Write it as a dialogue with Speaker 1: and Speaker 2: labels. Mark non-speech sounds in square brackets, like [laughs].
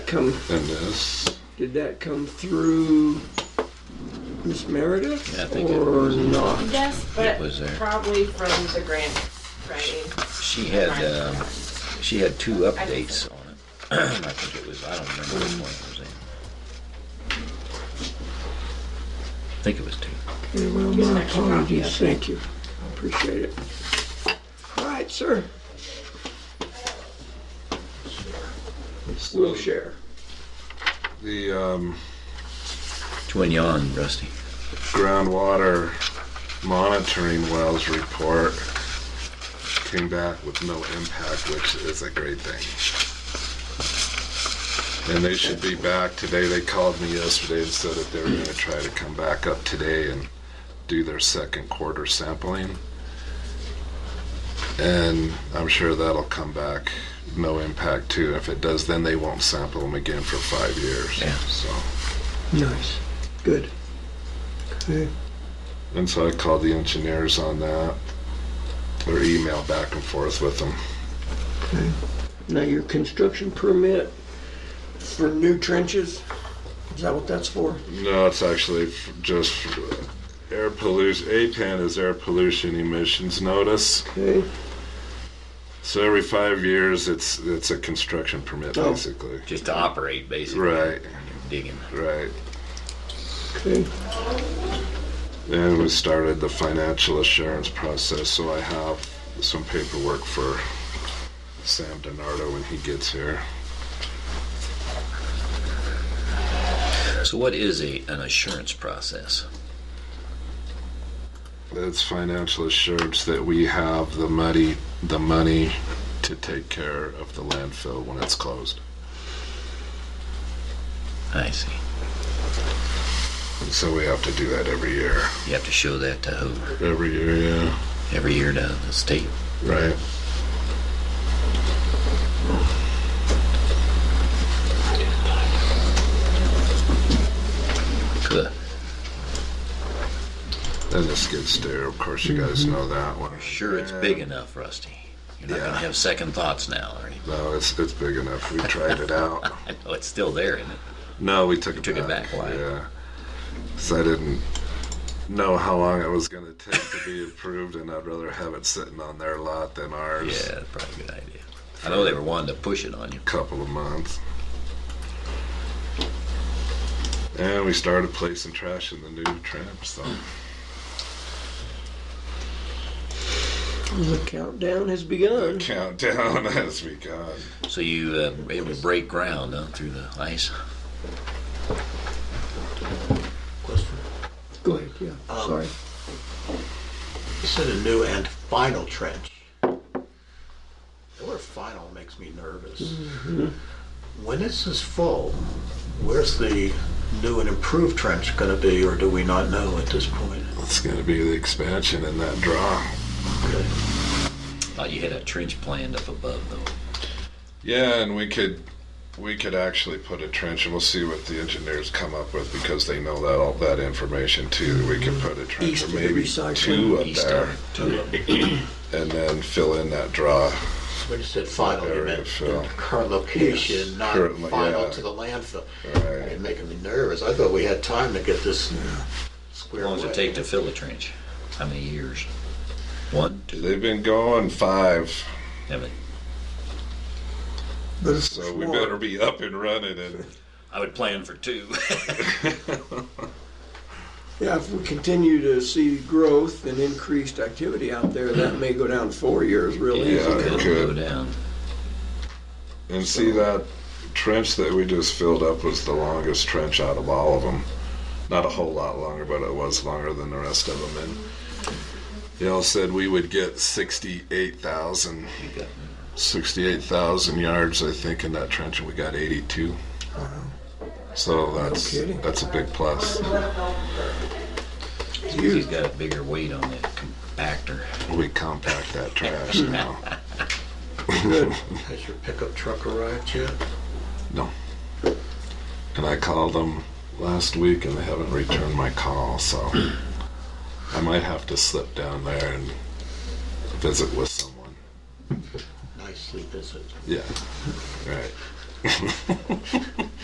Speaker 1: come,
Speaker 2: and this.
Speaker 1: did that come through Miss Meredith?
Speaker 3: Yeah, I think it
Speaker 1: Or
Speaker 3: was.
Speaker 1: not?
Speaker 4: Yes, but
Speaker 3: was there.
Speaker 4: probably from the grant writing.
Speaker 3: She had, um, she had two updates on it. [clears throat] I think it was, I don't remember which one it was in. I think it was two.
Speaker 1: Okay, well, my apologies, thank you, appreciate it. All right, sir, we'll share.
Speaker 2: The um,
Speaker 3: Twin yawn, Rusty.
Speaker 2: groundwater monitoring wells report came back with no impact, which is a great thing. And they should be back today. They called me yesterday and said that they were going to try to come back up today and do their second quarter sampling. And I'm sure that'll come back no impact too. If it does, then they won't sample them again for five years.
Speaker 3: Yeah.
Speaker 2: So.
Speaker 1: Nice, good. Okay.
Speaker 2: And so I called the engineers on that, or emailed back and forth with them.
Speaker 1: Now, your construction permit for new trenches, is that what that's for?
Speaker 2: No, it's actually f- just air pollution. APAN is air pollution emissions notice.
Speaker 1: Okay,
Speaker 2: So every five years, it's it's a construction permit,
Speaker 1: Oh.
Speaker 2: basically.
Speaker 3: Just to operate, basically.
Speaker 2: Right,
Speaker 3: Digging.
Speaker 2: right.
Speaker 1: okay,
Speaker 2: And we started the financial assurance process, so I have some paperwork for Sam DiNardo when he gets here.
Speaker 3: So what is a, an assurance process?
Speaker 2: It's financial assurance that we have the money, the money to take care of the landfill when it's closed.
Speaker 3: I see.
Speaker 2: So we have to do that every year.
Speaker 3: You have to show that to Hoover
Speaker 2: Every year, yeah.
Speaker 3: every year to the state.
Speaker 2: Right.
Speaker 3: Good.
Speaker 2: And the skid steer, of course, you guys know that one.
Speaker 3: Sure, it's big enough, Rusty. You're not gonna
Speaker 2: Yeah.
Speaker 3: have second thoughts now or anything. [laughs]
Speaker 2: No, it's it's big enough. We tried it [laughs] out.
Speaker 3: I know it's still there, isn't it?
Speaker 2: No, we took it
Speaker 3: took it back, why?
Speaker 2: Yeah. So I didn't know how long it was going to take to be [laughs] approved, and I'd rather have it sitting on their lot than ours.
Speaker 3: Yeah, that's probably a good idea. I know they were wanting to push it on you.
Speaker 2: couple of months. And we started placing trash in the new trap, so
Speaker 1: the countdown has begun.
Speaker 2: the countdown [laughs] has begun.
Speaker 3: So you uh, able to break ground huh, through the ice?
Speaker 5: Question.
Speaker 1: Go ahead, yeah,
Speaker 5: Um,
Speaker 1: sorry.
Speaker 5: You said a new and final trench. The word final makes me nervous.
Speaker 2: Mm-hmm.
Speaker 5: When this is full, where's the new and improved trench gonna be, or do we not know at this point?
Speaker 2: It's gonna be the expansion in that draw.
Speaker 5: Okay.
Speaker 3: Thought you had a trench planned up above though.
Speaker 2: Yeah, and we could we could actually put a trench, and we'll see what the engineers come up with because they know that all that information too. We could put a trench,
Speaker 1: Mm-hmm. East
Speaker 2: or
Speaker 1: of the
Speaker 2: maybe
Speaker 1: recycling.
Speaker 2: two up
Speaker 3: East
Speaker 2: there,
Speaker 3: of two of them.
Speaker 2: and then fill in that draw.
Speaker 5: When you said final, you
Speaker 2: Area
Speaker 5: meant
Speaker 2: fill.
Speaker 5: the current location, not
Speaker 2: Current lo-
Speaker 5: final
Speaker 2: yeah.
Speaker 5: to the landfill.
Speaker 2: Right.
Speaker 5: It making me nervous. I thought we had time to get this
Speaker 3: How
Speaker 5: square
Speaker 3: long does it take to fill a trench? How many years? One, two,
Speaker 2: They've been going five,
Speaker 3: seven.
Speaker 1: But it's
Speaker 2: so we better be up and running and.
Speaker 3: I would plan for two. [laughs]
Speaker 1: Yeah, if we continue to see growth and increased activity out there, that may go down four years real
Speaker 2: Yeah.
Speaker 1: easy.
Speaker 3: It could
Speaker 2: good.
Speaker 3: go down.
Speaker 2: And see that trench that we just filled up was the longest trench out of all of them. Not a whole lot longer, but it was longer than the rest of them. And y'all said we would get 68,000,
Speaker 3: You got
Speaker 2: 68,000 yards, I think, in that trench, and we got 82. So that's
Speaker 1: kidding.
Speaker 2: that's a big plus.
Speaker 3: He's got a bigger weight on that compactor.
Speaker 2: We compact that trash now.
Speaker 5: Has your pickup truck arrived yet?
Speaker 2: No. And I called them last week and they haven't returned my call, so I might have to slip down there and visit with someone.
Speaker 5: Nicely visit.
Speaker 2: Yeah. Right.